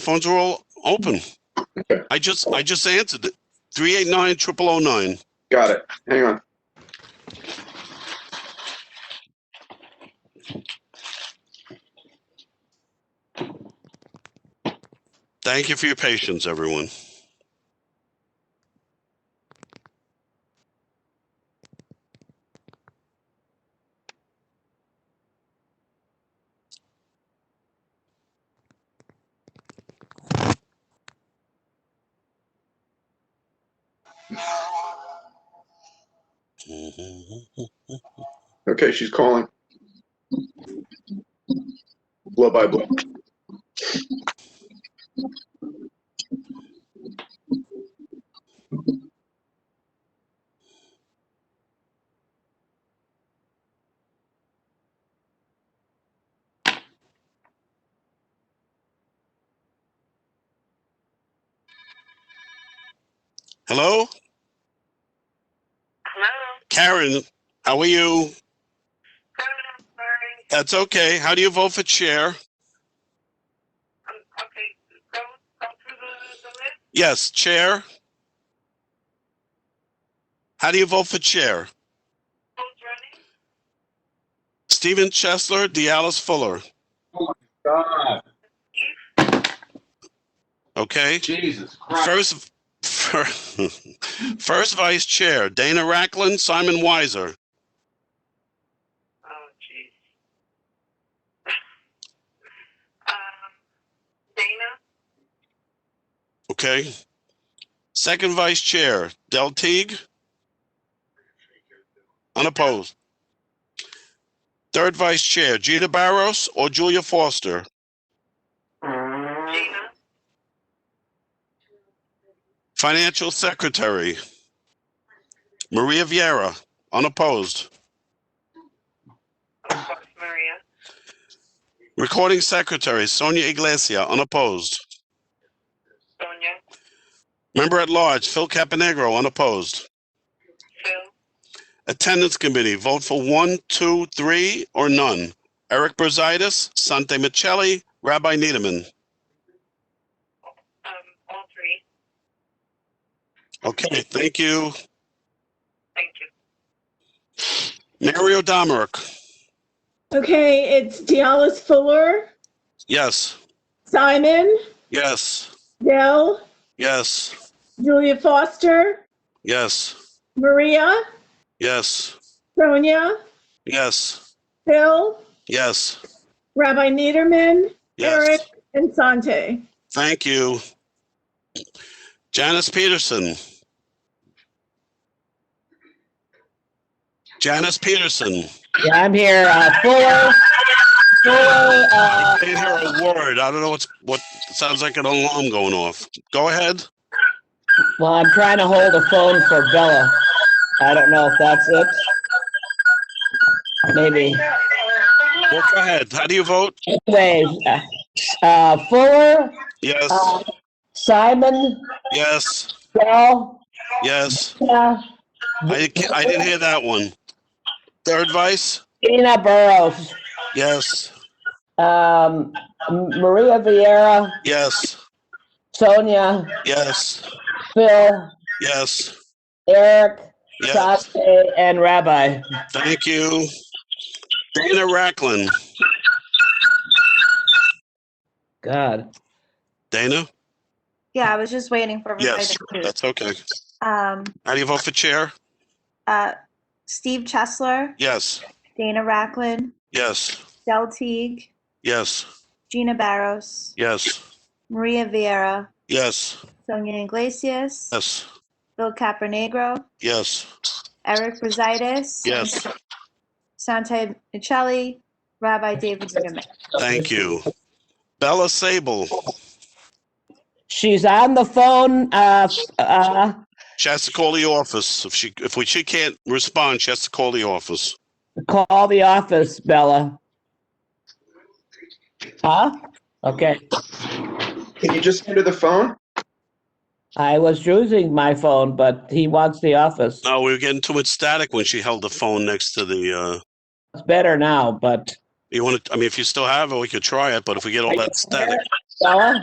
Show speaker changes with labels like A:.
A: Phones are all open.
B: Okay.
A: I just, I just answered it. Three eight nine triple oh nine.
B: Got it. Hang on.
A: Thank you for your patience, everyone. Mm-hmm.
B: Okay, she's calling. Blow by blow.
A: Hello,
C: Hello.
A: Karen. How are you?
C: I'm sorry.
A: That's okay. How do you vote for chair?
C: Um, okay. Go, go through the, the list.
A: Yes, chair. How do you vote for chair?
C: Who's running?
A: Stephen Chesler, Dialis Fuller.
D: God,
A: Okay.
D: Jesus Christ.
A: First, first vice chair Dana Racklin, Simon Weiser.
C: Oh, jeez. um, Dana.
A: Okay. Second vice chair, Del Teague. Unopposed. Third vice chair, Gina Barros or Julia Foster.
C: Gina.
A: Financial secretary, Maria Vieira. Unopposed.
C: Of course, Maria.
A: Recording secretary, Sonia Iglesia. Unopposed.
C: Sonia.
A: Member at large, Phil Caponegro. Unopposed.
C: Phil.
A: Attendance committee, vote for one, two, three, or none. Eric Brusitis, Sante Michelli, Rabbi Needleman.
C: Um, all three.
A: Okay, thank you.
C: Thank you.
A: Mario Domerick,
E: Okay, it's Dialis Fuller,
A: yes,
E: Simon,
A: yes,
E: Dell,
A: yes,
E: Julia Foster,
A: yes,
E: Maria,
A: yes,
E: Sonia,
A: yes,
E: Phil,
A: yes,
E: Rabbi Niederman, Eric,
A: yes.
E: and Sante.
A: Thank you. Janice Peterson. Janice Peterson,
F: Yeah, I'm here. Uh, Fuller, Fuller, uh,
A: I can't hear a word. I don't know what's, what, it sounds like an alarm going off. Go ahead.
F: well, I'm trying to hold a phone for Bella. I don't know if that's it. Maybe.
A: Well, go ahead. How do you vote?
F: Anyways, uh, uh, Fuller,
A: Yes,
F: uh, Simon,
A: yes,
F: Bell,
A: yes.
F: Tina,
A: I, can't- I didn't hear that one. Third vice?
F: Tina Burrows,
A: Yes,
F: um, Maria Vieira,
A: yes.
F: Sonia,
A: Yes,
F: Phil,
A: yes,
F: Eric,
A: yes.
F: Sante, and Rabbi.
A: Thank you. Dana Racklin.
F: God.
A: Dana?
G: Yeah, I was just waiting for everybody
A: Yes,
G: to mute.
A: that's okay.
G: Um,
A: How do you vote for chair?
G: uh, Steve Chesler,
A: Yes,
G: Dana Racklin,
A: yes,
G: Del Teague,
A: yes,
G: Gina Barros,
A: yes,
G: Maria Vieira,
A: yes,
G: Sonia Iglesias,
A: yes,
G: Phil Capernegro,
A: yes,
G: Eric Brusitis,
A: yes.
G: Sante Michelli, Rabbi David Niederman.
A: Thank you. Bella Sable,
F: She's on the phone, uh, f- uh,
A: she has to call the office. If she, if we, she can't respond, she has to call the office.
F: Call the office, Bella. Huh? Okay,
B: Can you just enter the phone?
F: I was using my phone, but he wants the office.
A: No, we were getting too much static when she held the phone next to the, uh,
F: It's better now, but
A: you want to, I mean, if you still have it, we could try it, but if we get all that static.
F: Bella?